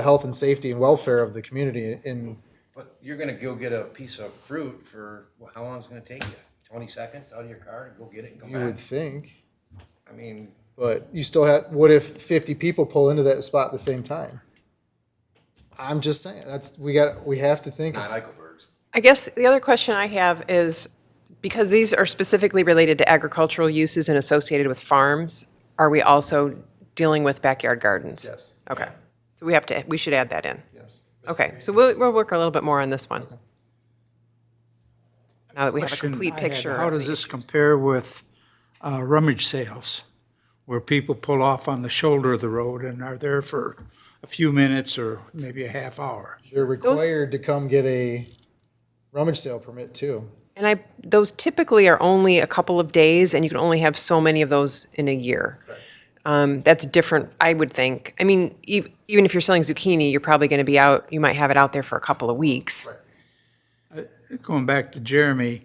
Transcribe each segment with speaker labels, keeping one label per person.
Speaker 1: the health and safety and welfare of the community in,
Speaker 2: But you're gonna go get a piece of fruit for, well, how long is it gonna take you? Twenty seconds out of your car to go get it and come
Speaker 1: you would
Speaker 2: back?
Speaker 1: think.
Speaker 2: I mean,
Speaker 1: But you still have, what if fifty people pull into that spot at the same time? I'm just saying, that's, we got, we have to think.
Speaker 2: not
Speaker 1: of-
Speaker 2: Eichelberg's.
Speaker 3: I guess the other question I have is, because these are specifically related to agricultural uses and associated with farms, are we also dealing with backyard gardens?
Speaker 1: Yes.
Speaker 3: Okay, so we have to, we should add that in.
Speaker 1: Yes.
Speaker 3: Okay, so we'll, we'll work a little bit more on this one. Now that we have a
Speaker 4: question
Speaker 3: complete
Speaker 4: I had,
Speaker 3: picture.
Speaker 4: How
Speaker 3: of
Speaker 4: does
Speaker 3: the-
Speaker 4: this compare with uh, rummage sales, where people pull off on the shoulder of the road and are there for a few minutes or maybe a half hour?
Speaker 1: You're required to come get a rummage sale permit too.
Speaker 3: And I, those typically are only a couple of days, and you can only have so many of those in a year. Um, that's different, I would think. I mean, e- even if you're selling zucchini, you're probably going to be out, you might have it out there for a couple of weeks.
Speaker 4: Going back to Jeremy,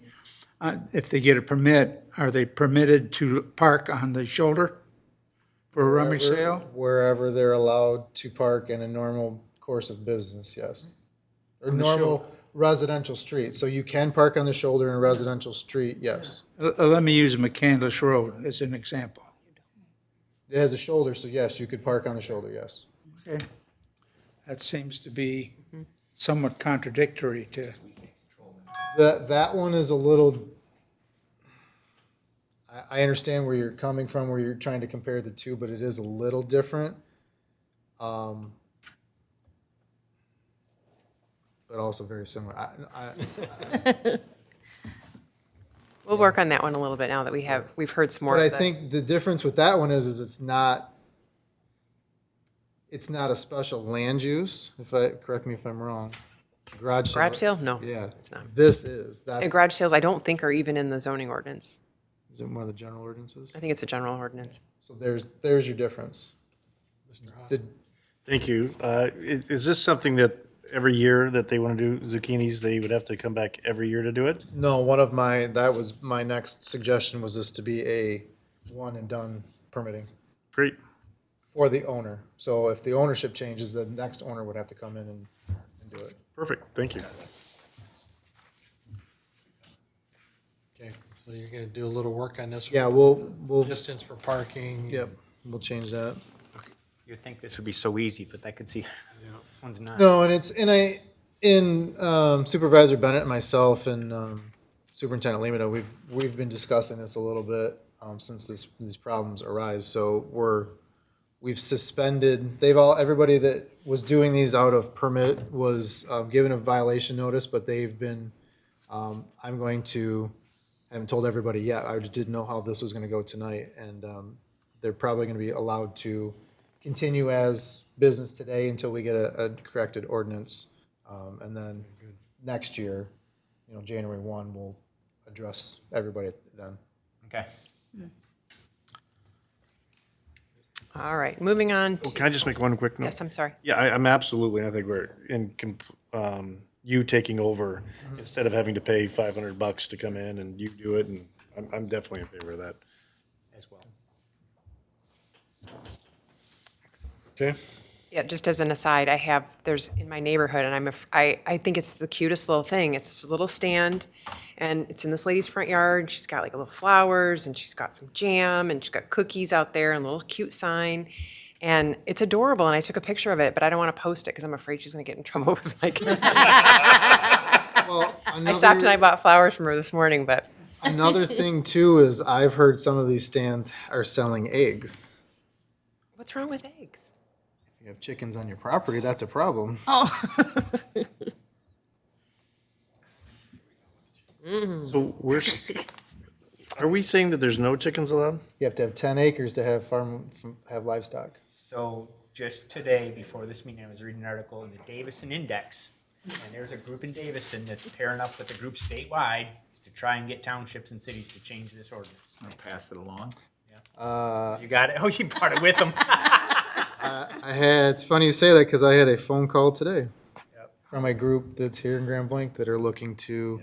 Speaker 4: uh, if they get a permit, are they permitted to park on the shoulder for a rummage sale?
Speaker 1: Wherever they're allowed to park in a normal course of business, yes. Or normal residential street. So you can park on the shoulder in a residential street, yes.
Speaker 4: Uh, uh, Let me use McCandless Road as an example.
Speaker 1: It has a shoulder, so yes, you could park on the shoulder, yes.
Speaker 4: Okay. That seems to be somewhat contradictory to
Speaker 1: That, that one is a little, I, I understand where you're coming from, where you're trying to compare the two, but it is a little different. Um, But also very similar. I, I,
Speaker 3: We'll work on that one a little bit now that we have, we've heard some more
Speaker 1: But I
Speaker 3: of the-
Speaker 1: think the difference with that one is, is it's not, it's not a special land use, if I, correct me if I'm wrong. Garage sale.
Speaker 3: Garage sale? No.
Speaker 1: Yeah.
Speaker 3: It's not.
Speaker 1: This is, that's,
Speaker 3: And garage sales, I don't think are even in the zoning ordinance.
Speaker 1: is it one of the general ordinances?
Speaker 3: I think it's a general ordinance.
Speaker 1: So there's, there's your difference. Did,
Speaker 5: Thank you. Uh, i- Is this something that every year that they want to do zucchinis, they would have to come back every year to do it?
Speaker 1: no, one of my, that was, my next suggestion was this to be a one and done permitting
Speaker 5: Great.
Speaker 1: for the owner. So if the ownership changes, the next owner would have to come in and, and do it.
Speaker 5: Perfect. Thank you.
Speaker 6: Okay, so you're gonna do a little work on this?
Speaker 1: Yeah, we'll, we'll,
Speaker 6: Distance for parking?
Speaker 1: yep, we'll change that.
Speaker 7: You'd think this would be so easy, but I could see this one's not.
Speaker 1: No, and it's and I in um, Supervisor Bennett and myself and um, Superintendent Lemata, we've we've been discussing this a little bit um, since this these problems arise. So we're we've suspended. They've all everybody that was doing these out of permit was um, given a violation notice, but they've been. Um, I'm going to. I haven't told everybody yet. I just didn't know how this was going to go tonight, and um, they're probably going to be allowed to continue as business today until we get a, a corrected ordinance. Um, and then next year, you know, January one, we'll address everybody then.
Speaker 7: Okay.
Speaker 3: All right, moving on. to-
Speaker 5: Can I just make one quick note?
Speaker 3: Yes, I'm sorry.
Speaker 5: Yeah, I- I'm absolutely, and I think we're in, com- um, you taking over
Speaker 3: Mm-hmm.
Speaker 5: instead of having to pay 500 bucks to come in and you do it, and I'm- I'm definitely in favor of that.
Speaker 7: As well.
Speaker 5: Okay?
Speaker 3: Yeah, just as an aside, I have, there's, in my neighborhood, and I'm, af- I, I think it's the cutest little thing. It's this little stand, and it's in this lady's front yard. She's got like little flowers, and she's got some jam, and she's got cookies out there, and a little cute sign. And it's adorable, and I took a picture of it, but I don't want to post it because I'm afraid she's going to get in trouble with like.
Speaker 1: Well,
Speaker 3: I stopped and I
Speaker 1: another,
Speaker 3: bought flowers from her this morning, but
Speaker 1: another thing too is I've heard some of these stands are selling eggs.
Speaker 3: what's wrong with eggs?
Speaker 1: If you have chickens on your property, that's a problem.
Speaker 3: Oh.
Speaker 5: So we're, s- are we saying that there's no chickens allowed?
Speaker 1: You have to have ten acres to have farm, have livestock.
Speaker 7: So just today, before this meeting, I was reading an article in the Davison Index, and there's a group in Davison that's pairing up with a group statewide to try and get townships and cities to change this ordinance.
Speaker 8: pass it along.
Speaker 7: You got it? Oh, you brought it with them.
Speaker 1: I had, it's funny you say that because I had a phone call today from a group that's here in Grand Blanc that are looking to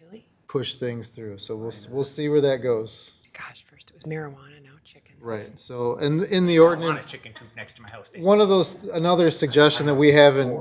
Speaker 3: Really?
Speaker 1: push things through. So we'll, s- we'll see where that goes.
Speaker 3: Gosh, first it was marijuana, now chicken.
Speaker 1: Right, so, in, in the
Speaker 7: I want a
Speaker 1: ordinance,
Speaker 7: chicken coop next to my house. They
Speaker 1: one of those, another suggestion that we haven't